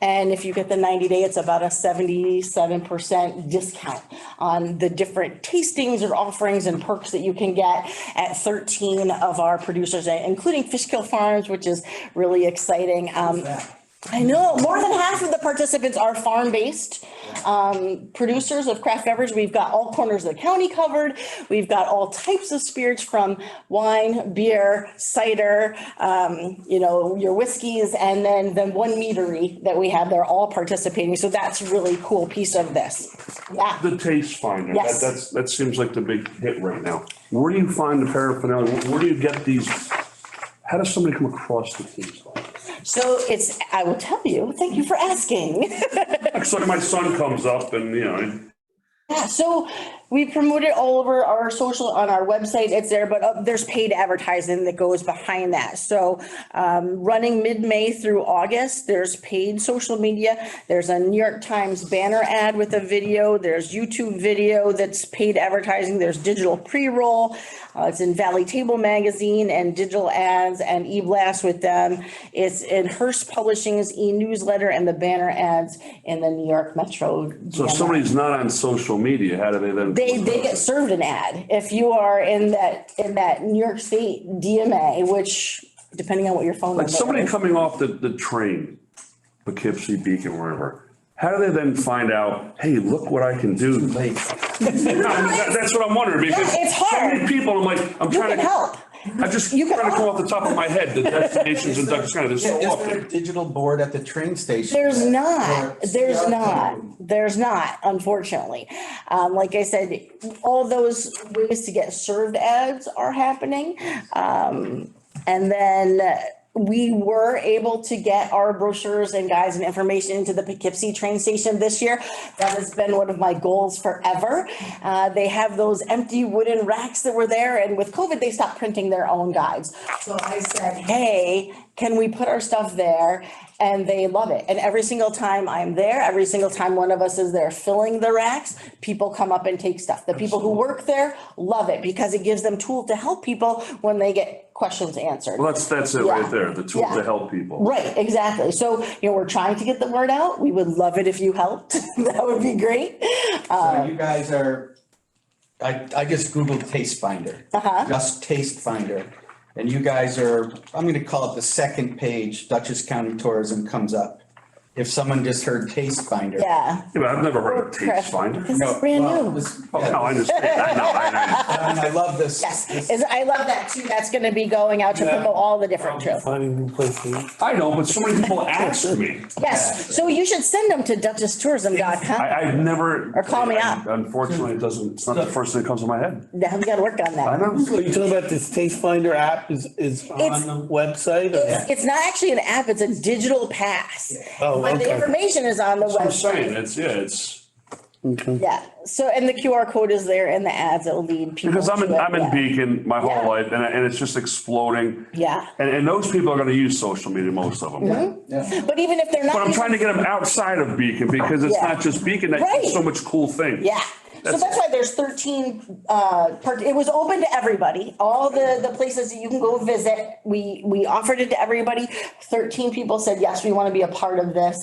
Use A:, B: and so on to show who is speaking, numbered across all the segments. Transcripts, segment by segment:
A: And if you get the ninety day, it's about a seventy-seven percent discount on the different tastings or offerings and perks that you can get at thirteen of our producers, including Fishkill Farms, which is really exciting. Um, I know, more than half of the participants are farm-based um, producers of craft beverage. We've got all corners of the county covered. We've got all types of spirits from wine, beer, cider, um, you know, your whiskeys, and then the one meadery that we have, they're all participating. So that's a really cool piece of this. Yeah.
B: The taste finder, that,
A: Yes.
B: that's, that seems like the big hit right now. Where do you find the paraphernalia? Where- Where do you get these? How does somebody come across the taste finder?
A: So it's, I will tell you, thank you for asking.
B: It's like my son comes up and, you know,
A: Yeah, so we promote it all over our social, on our website, it's there, but uh, there's paid advertising that goes behind that. So um, running mid-May through August, there's paid social media, there's a New York Times banner ad with a video, there's YouTube video that's paid advertising, there's digital pre-roll. uh, It's in Valley Table Magazine and digital ads and e-blast with them. It's in Hearst Publishing's e-newsletter and the banner ads in the New York Metro.
B: so
A: DMR.
B: if somebody's not on social media, how do they then?
A: They, they get served an ad. If you are in that, in that New York State DMA, which depending on what your phone
B: Like
A: number
B: somebody
A: is.
B: coming off the, the train, Poughkeepsie, Beacon, wherever, how do they then find out, hey, look what I can do? Like, No, I mean, that- That's what I'm wondering because.
A: It's
B: So many
A: hard.
B: people, I'm like, I'm
A: You
B: trying
A: can
B: to.
A: help.
B: I'm just
A: You
B: trying
A: can-
B: to come off the top of my head, the destinations in Douglas County, there's so
C: Is there
B: often.
C: a digital board at the train station?
A: There's
C: that-
A: not,
C: or-
A: there's
C: Yeah.
A: not, there's not, unfortunately. Um, like I said, all those ways to get served ads are happening. Um, and then uh, we were able to get our brochures and guides and information into the Poughkeepsie train station this year. That has been one of my goals forever. Uh, they have those empty wooden racks that were there and with COVID, they stopped printing their own guides. So I said, hey, can we put our stuff there? And they love it. And every single time I'm there, every single time one of us is there filling the racks, people come up and take stuff. The people who work there love it because it gives them tool to help people when they get questions answered.
B: Well, that's, that's it right
A: Yeah.
B: there, the tool
A: Yeah.
B: to help people.
A: Right, exactly. So, you know, we're trying to get the word out. We would love it if you helped. That would be great. Uh,
C: So you guys are, I, I just Googled Taste Finder.
A: Uh-huh.
C: Just Taste Finder. And you guys are, I'm gonna call it the second page, Dutchess County Tourism comes up. If someone just heard Taste Finder.
A: Yeah.
B: Yeah, but I've never heard of
A: Correct.
B: taste finder.
A: This is
C: No,
A: brand
C: well,
A: new.
C: this-
B: Oh, No, I
C: yeah,
B: understand that, no, I-
C: And I love this.
A: Yes,
C: this-
A: is, I love that too. That's gonna be going out to promote all the different trails.
D: Finding new places.
B: I, I know, but so many people ask me,
A: Yes, so you should send them to
B: I,
A: duchesstourism.com.
B: I've never.
A: Or call me up.
B: Unfortunately, it doesn't, it's not the first thing that comes to my head.
A: Now we gotta work on
B: I
A: that.
D: Are
B: know.
D: you talking about this Taste Finder app is, is on
A: It's-
D: the website?
A: It's, it's not actually an app, it's a digital pass.
D: Oh,
A: But the
D: okay.
A: information is on the
B: I'm
A: website.
B: saying, it's, yeah, it's,
A: Yeah, so, and the QR code is there in the ads that will lead people.
B: because I'm in,
A: to it,
B: I'm in
A: yeah.
B: Beacon my
A: Yeah.
B: whole life and, I- and it's just exploding.
A: Yeah.
B: And, and those people are gonna use social media, most of them.
C: Yeah.
A: But even if they're not.
B: But I'm trying to get them outside of Beacon because it's
A: Yeah.
B: not just Beacon, that
A: Right.
B: so much cool thing.
A: Yeah, so
B: That's-
A: that's why there's thirteen, uh, part, it was open to everybody, all the, the places that you can go visit, we, we offered it to everybody. Thirteen people said, yes, we wanna be a part of this,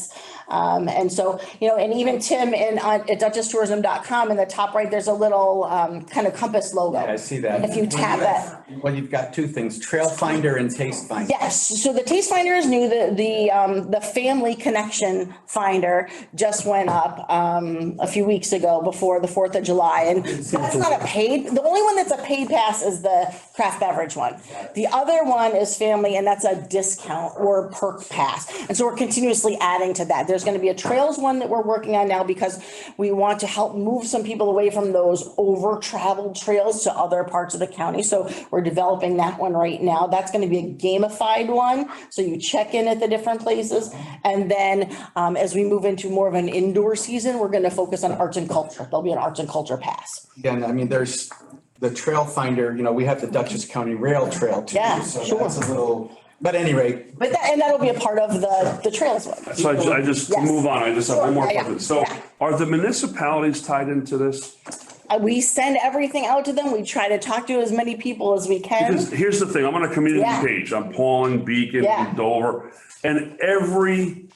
A: um, and so, you know, and even Tim in, on, at duchesstourism.com, in the top right, there's a little, um, kind of compass logo.
C: I see that.
A: If you tap it.
C: Well, you've got two things, Trail Finder and Taste Finder.
A: Yes, so the taste finder is new, the, the, um, the family connection finder just went up, um, a few weeks ago before the Fourth of July. And that's not a paid, the only one that's a paid pass is the craft beverage one. The other one is family and that's a discount or perk pass. And so we're continuously adding to that. There's gonna be a trails one that we're working on now because we want to help move some people away from those over traveled trails to other parts of the county. So we're developing that one right now. That's gonna be a gamified one. So you check in at the different places. And then um, as we move into more of an indoor season, we're gonna focus on arts and culture. There'll be an arts and culture pass.
C: Again, I mean, there's the Trail Finder, you know, we have the Dutchess County Rail Trail too.
A: Yeah,
C: So that's a little, but anyway,
A: But that, and that'll be a part of the, the trails one.
B: So I ju- I just, to
A: Yes.
B: move on, I just have one more
A: Sure, yeah, yeah,
B: question. So
A: yeah.
B: are the municipalities tied into this?
A: Uh, We send everything out to them. We try to talk to as many people as we can.
B: Because here's the thing, I'm on a community
A: Yeah.
B: page, I'm Pauling, Beacon,
A: Yeah.
B: Dover, and every